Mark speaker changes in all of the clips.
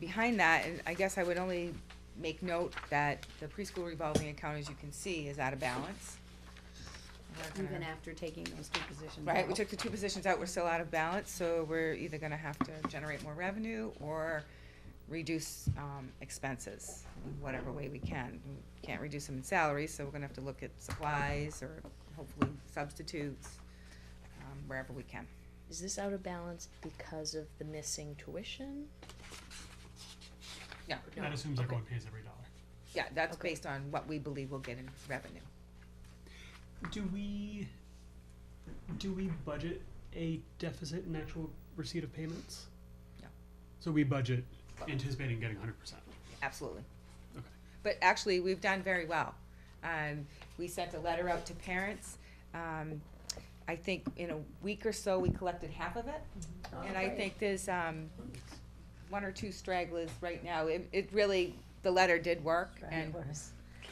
Speaker 1: behind that, and I guess I would only make note that the preschool revolving account, as you can see, is out of balance. We're gonna-
Speaker 2: even after taking those two positions
Speaker 1: Right, we
Speaker 2: out.
Speaker 1: took the two positions out, we're still out of balance, so we're either gonna have to generate more revenue or reduce, um, expenses, in whatever way we can. We Can't reduce them in salaries, so we're gonna have to look at supplies or hopefully substitutes, um, wherever we can.
Speaker 3: Is this out of balance because of the missing tuition?
Speaker 1: Yeah,
Speaker 3: No.
Speaker 4: That assumes
Speaker 3: Okay.
Speaker 4: everyone pays every dollar.
Speaker 1: yeah, that's
Speaker 3: Okay.
Speaker 1: based on what we believe we'll get in revenue.
Speaker 4: Do we, do we budget a deficit in actual receipt of payments?
Speaker 1: No.
Speaker 4: So we budget anticipating getting hundred percent.
Speaker 1: Absolutely.
Speaker 4: Okay.
Speaker 1: But actually, we've done very well. Um, we sent a letter out to parents. Um, I think in a week or so, we collected half of it. And I think there's, um, one or two stragglers right now. It, it really, the letter did work and
Speaker 4: Can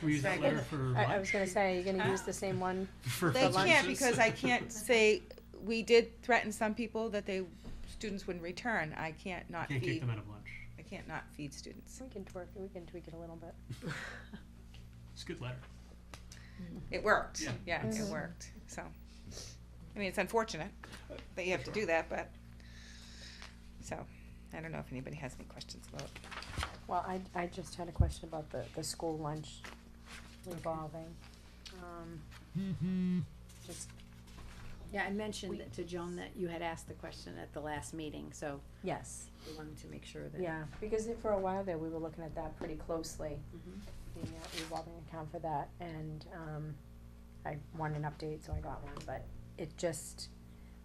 Speaker 4: we use that
Speaker 1: Sorry.
Speaker 4: letter for lunch?
Speaker 5: I, I was gonna say, are you gonna use the same one?
Speaker 4: For
Speaker 1: they can't
Speaker 4: lunches?
Speaker 1: because I can't say, we did threaten some people that they, students wouldn't return. I can't not
Speaker 4: Can't kick
Speaker 1: feed,
Speaker 4: them out of lunch.
Speaker 1: I can't not feed students.
Speaker 5: We can twerk, we can tweak it a little bit.
Speaker 4: It's a good letter.
Speaker 1: It worked.
Speaker 4: Yeah.
Speaker 1: Yeah, it
Speaker 5: Mhm.
Speaker 1: worked, so. I mean, it's unfortunate that you have to do that, but, so, I don't know if anybody has any questions about,
Speaker 5: Well, I, I just had a question about the, the school lunch revolving. Um, Just,
Speaker 2: Yeah, I mentioned to Joan that you had asked the question at the last meeting, so
Speaker 5: yes,
Speaker 2: we wanted to make sure that.
Speaker 5: yeah, because it- for a while there, we were looking at that pretty closely,
Speaker 2: Mhm.
Speaker 5: the uh, revolving account for that, and, um, I wanted an update, so I got one, but it just,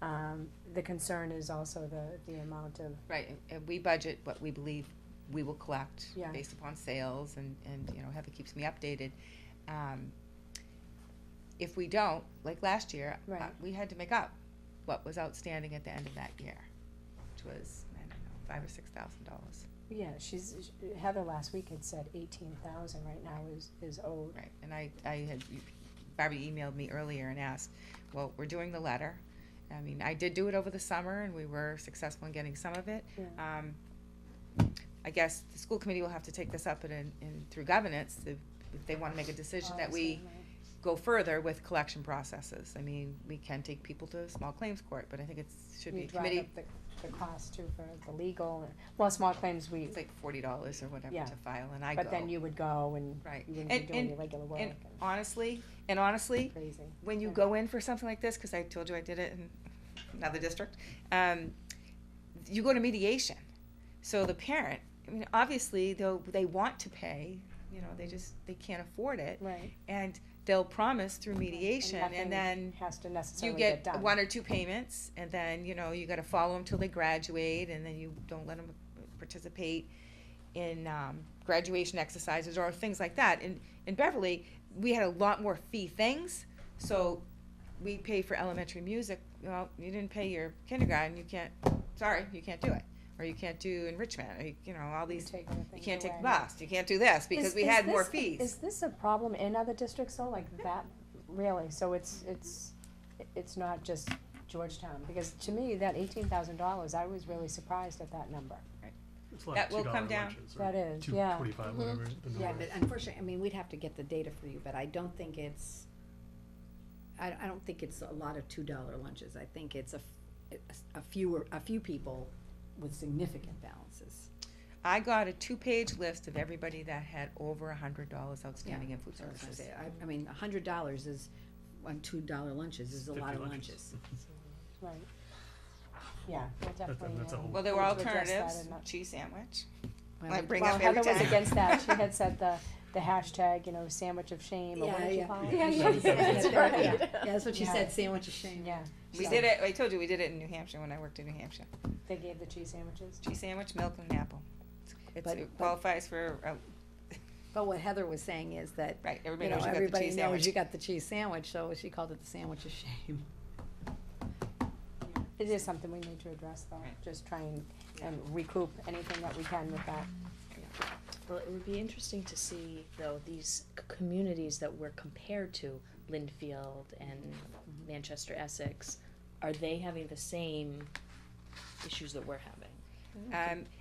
Speaker 5: um, the concern is also the, the amount of
Speaker 1: right, and- and we budget what we believe we will collect
Speaker 5: Yeah.
Speaker 1: based upon sales and, and, you know, Heather keeps me updated. Um, If we don't, like last year, uh,
Speaker 5: Right.
Speaker 1: we had to make up what was outstanding at the end of that year, which was, I don't know, five or six thousand dollars.
Speaker 5: Yeah, she's, Heather last week had said eighteen thousand right now is, is owed.
Speaker 1: Right, and I, I had, Barbie emailed me earlier and asked, well, we're doing the letter. I mean, I did do it over the summer and we were successful in getting some of it.
Speaker 5: Yeah.
Speaker 1: Um, I guess the school committee will have to take this up and, and through governance, if, if they wanna make a decision that we go further with collection processes. I mean, we can take people to small claims court, but I think it's, should be
Speaker 5: We
Speaker 1: a
Speaker 5: drive
Speaker 1: committee,
Speaker 5: up the, the cost too for the legal, and- well, small claims we,
Speaker 1: it's like forty dollars or whatever
Speaker 5: Yeah.
Speaker 1: to file and I go.
Speaker 5: but then you would go and
Speaker 1: Right,
Speaker 5: you wouldn't
Speaker 1: and,
Speaker 5: be doing your
Speaker 1: and
Speaker 5: regular work
Speaker 1: and
Speaker 5: and
Speaker 1: honestly, and honestly,
Speaker 5: crazy.
Speaker 1: when you
Speaker 5: Yeah.
Speaker 1: go in for something like this, because I told you I did it in another district, um, you go to mediation. So the parent, I mean, obviously they'll they want to pay, you know, they just they can't afford it,
Speaker 5: Right.
Speaker 1: and they'll promise through mediation,
Speaker 5: nothing
Speaker 1: and then
Speaker 5: Has to
Speaker 1: you
Speaker 5: necessarily get
Speaker 1: get
Speaker 5: done.
Speaker 1: one or two payments, and then you know you got to follow them till they graduate, and then you don't let them participate in um, graduation exercises or things like that. In in Beverly, we had a lot more fee things, so we pay for elementary music. Well, you didn't pay your kindergarten, you can't. Sorry, you can't do it, or you can't do enrichment, or you, you know all
Speaker 5: You
Speaker 1: these.
Speaker 5: take other
Speaker 1: You
Speaker 5: things
Speaker 1: can't take
Speaker 5: away.
Speaker 1: the bus, you can't do this because
Speaker 5: Is-
Speaker 1: we
Speaker 5: is
Speaker 1: had more
Speaker 5: this-
Speaker 1: fees.
Speaker 5: Is this a problem in other districts though, like that, really, so it's, it's, it's not just Georgetown, because to me, that eighteen thousand dollars, I was really surprised at that number.
Speaker 4: It's like
Speaker 1: That will
Speaker 4: $2
Speaker 1: come down.
Speaker 4: lunches, or
Speaker 5: That is,
Speaker 4: Two
Speaker 5: yeah.
Speaker 4: twenty-five,
Speaker 3: Mhm.
Speaker 4: whatever the number
Speaker 2: Yeah,
Speaker 4: is.
Speaker 2: but unfortunately, I mean, we'd have to get the data for you, but I don't think it's, I, I don't think it's a lot of two dollar lunches, I think it's a, f- a fewer, a few people with significant balances.
Speaker 1: I got a two-page list of everybody that had over a hundred dollars outstanding in food
Speaker 2: So I was gonna
Speaker 1: services.
Speaker 2: say, I, I mean, a hundred dollars is, on two dollar lunches is a lot
Speaker 4: 50
Speaker 2: of
Speaker 4: lunches.
Speaker 2: lunches.
Speaker 5: Right. Yeah, we'll definitely.
Speaker 4: that's a
Speaker 5: um,
Speaker 4: whole-
Speaker 1: Well, there were
Speaker 5: we'll address that
Speaker 1: alternatives,
Speaker 5: in that-
Speaker 1: cheese sandwich.
Speaker 2: Well,
Speaker 1: I
Speaker 2: we-
Speaker 1: bring
Speaker 5: Well,
Speaker 1: up every
Speaker 5: Heather was
Speaker 1: time.
Speaker 5: against that, she had said the, the hashtag, you know, sandwich of shame, or what
Speaker 2: Yeah,
Speaker 5: did you
Speaker 2: yeah.
Speaker 5: call it?
Speaker 4: Yeah, yeah, yeah,
Speaker 5: That's
Speaker 2: yeah, yeah.
Speaker 5: right.
Speaker 2: Yeah, that's what she
Speaker 5: Yeah.
Speaker 2: said, sandwich of shame.
Speaker 5: Yeah,
Speaker 1: We
Speaker 2: So-
Speaker 1: did it, I told you, we did it in New Hampshire when I worked in New Hampshire.
Speaker 5: they gave the cheese sandwiches.
Speaker 1: Cheese sandwich, milk and an apple. It's- it's-
Speaker 2: But-
Speaker 1: It
Speaker 2: but-
Speaker 1: qualifies for, uh,
Speaker 2: But what Heather was saying is that,
Speaker 1: right,
Speaker 2: you
Speaker 1: everybody
Speaker 2: know,
Speaker 1: knows you got the
Speaker 2: everybody
Speaker 1: cheese
Speaker 2: knows
Speaker 1: sandwich.
Speaker 2: you got the cheese sandwich, so she called it the sandwich of shame.
Speaker 5: It is something we need to address though,
Speaker 1: Right.
Speaker 5: just try and, and recoup anything that we can with that.
Speaker 3: Well, it would be interesting to see though these c- communities that we're compared to, Lynnfield and
Speaker 2: Mm-hmm.
Speaker 3: Manchester Essex, are they having the same issues that we're having?
Speaker 1: Um,